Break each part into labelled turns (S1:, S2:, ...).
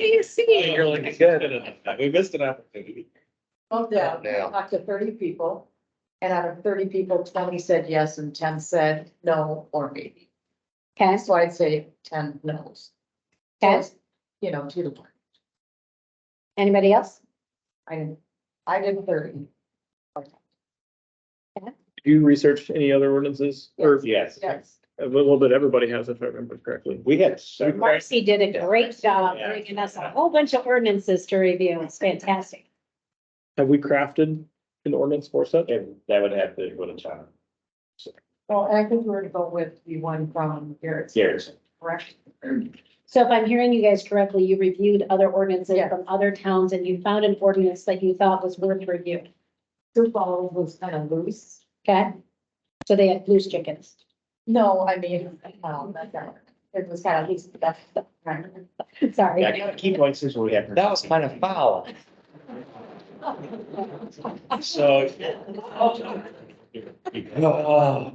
S1: KFC.
S2: You're like, good. We missed an opportunity.
S3: Well, down,
S4: Now.
S3: talked to thirty people, and out of thirty people, twenty said yes and ten said no or maybe.
S1: Okay,
S3: That's why I'd say ten no's.
S1: okay.
S3: You know, two to one.
S1: Anybody else?
S3: I didn't, I did thirty.
S5: Do you research any other ordinances or
S2: Yes.
S3: Yes.
S5: a little bit everybody has, if I remember correctly?
S2: We had. several-
S1: Marcy did a great job bringing us a whole bunch of ordinances to review. It's fantastic.
S5: Have we crafted an ordinance for such?
S2: And that would have to go to John.
S3: Well, and I think we're to go with the one from Garrett's,
S2: Garrison.
S3: correct?
S1: So if I'm hearing you guys correctly, you reviewed other ordinances
S3: Yes.
S1: from other towns and you found an ordinance that you thought was worth review.
S3: Sioux Falls was kind of loose.
S1: Okay? So they had loose chickens.
S3: No, I mean, um, that's not- it was kind of loose, but that's. the primary.
S1: Sorry.
S2: Yeah, Key points is what we have.
S4: That was kind of foul.
S2: So.
S4: Oh,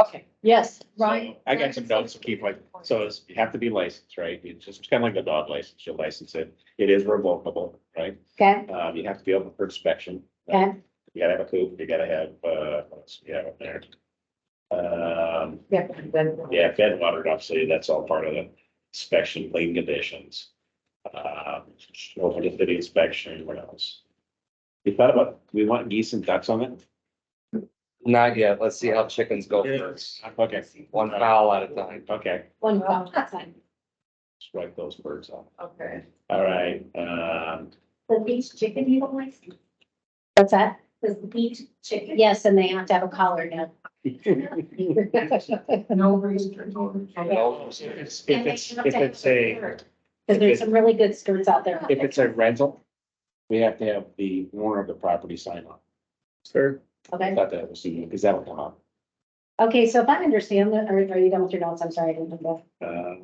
S3: Okay,
S1: Yes,
S3: Right.
S2: I got some notes, to keep like, so it's, you have to be licensed, right? It's just kind of like the dog license, you license it, it is revocable, right?
S1: okay,
S2: Um, you have to be open for inspection.
S1: okay.
S2: You gotta have a coop, you gotta have, uh, what else you have up there? Um,
S3: yeah, then.
S2: yeah, fed water, obviously, that's all part of the inspection, clean conditions. Uh, over to the inspection, what else? We thought about, we want geese and ducks on it?
S4: Not yet. Let's see how chickens go first.
S2: Okay.
S4: One fowl at a time.
S2: Okay,
S1: One problem at a time.
S2: strike those birds off.
S3: Okay.
S2: All right, um,
S6: The beach chicken you don't like,
S1: What's that?
S6: because the beach chicken.
S1: Yes, and they have to have a collar now.
S3: No reason.
S4: No.
S2: if
S6: And they
S2: it's,
S6: have
S2: if
S6: to have
S2: it's a,
S6: bird.
S1: Because there's some really good skirts out there.
S2: if it's a rental, we have to have the owner of the property sign on.
S5: Sir,
S2: I
S1: Okay.
S2: thought that was, because that would come up.
S1: Okay, so if I understand that, are, are you done with your notes? I'm sorry, I didn't do that.
S2: uh,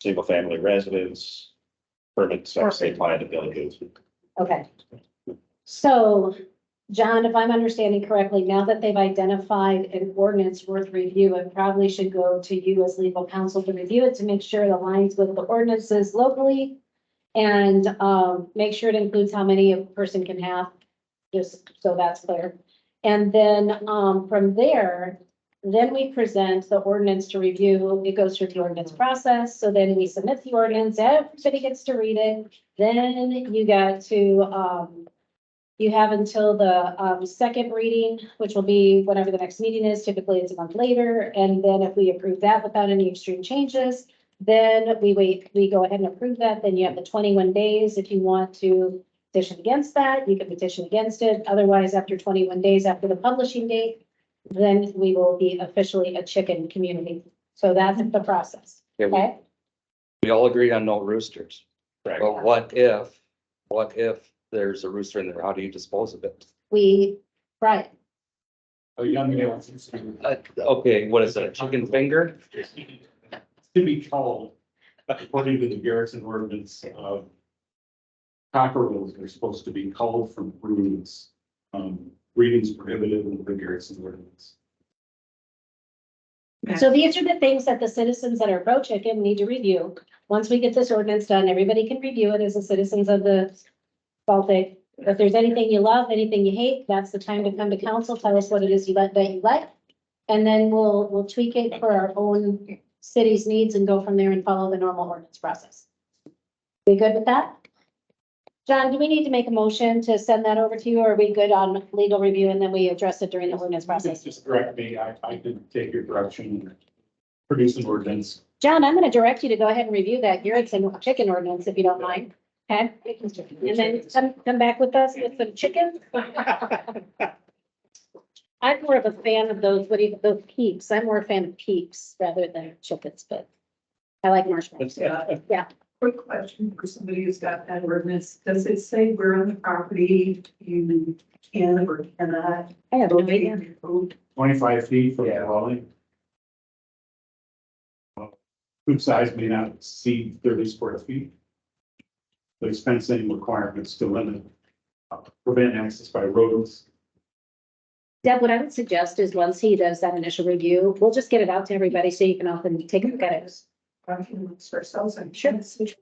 S2: single family residence, permits, they apply to villages.
S1: Okay. So, John, if I'm understanding correctly, now that they've identified an ordinance worth review, it probably should go to you as legal counsel to review it to make sure it aligns with the ordinances locally. And, um, make sure it includes how many a person can have, just so that's clear. And then, um, from there, then we present the ordinance to review. It goes through the ordinance process. So then we submit the ordinance, everybody gets to read it. Then you got to, um, you have until the, um, second reading, which will be whenever the next meeting is, typically it's a month later. And then if we approve that without any extreme changes, then we wait, we go ahead and approve that, then you have the twenty-one days if you want to petition against that, you can petition against it. Otherwise, after twenty-one days after the publishing date, then we will be officially a chicken community. So that's the process,
S4: Okay, we-
S1: okay?
S4: We all agreed on no roosters.
S2: Correct.
S4: But what if, what if there's a rooster in there? How do you dispose of it?
S1: We, right,
S7: Oh, young males.
S4: Uh, okay, what is it? A chicken finger?
S7: To be called, according to the Garrison ordinance um, of. Cockroaches are supposed to be culled from broodings. Um, breeding's prohibited in the Garrison ordinance.
S1: So these are the things that the citizens that are pro chicken need to review. Once we get this ordinance done, everybody can review it as the citizens of the Baltic. If there's anything you love, anything you hate, that's the time to come to council, tell us what it is you like, that you like. And then we'll, we'll tweak it for our own city's needs and go from there and follow the normal ordinance process. We good with that? John, do we need to make a motion to send that over to you, or are we good on legal review and then we address it during the ordinance process?
S7: Just- Just correct me, I, I didn't take your direction. Produce an ordinance.
S1: John, I'm gonna direct you to go ahead and review that Garrettson chicken ordinance, if you don't mind, okay? And then come, come back with us with some chicken. I'm more of a fan of those, what do you, those peeps, I'm more a fan of peeps rather than chickens, but I like marshmallows.
S8: Quick question for somebody who's got that ordinance. Does it say where on the property you can or cannot?
S1: I have no idea.
S8: Well,
S7: Twenty-five feet from the dwelling. Group size may not exceed thirty square feet. There's fencing requirements to limit, uh, prevent access by rodents.
S1: Deb, what I would suggest is once he does that initial review, we'll just get it out to everybody so you can often take a look at it.
S8: Talking amongst ourselves and
S1: Sure.
S8: tenants, which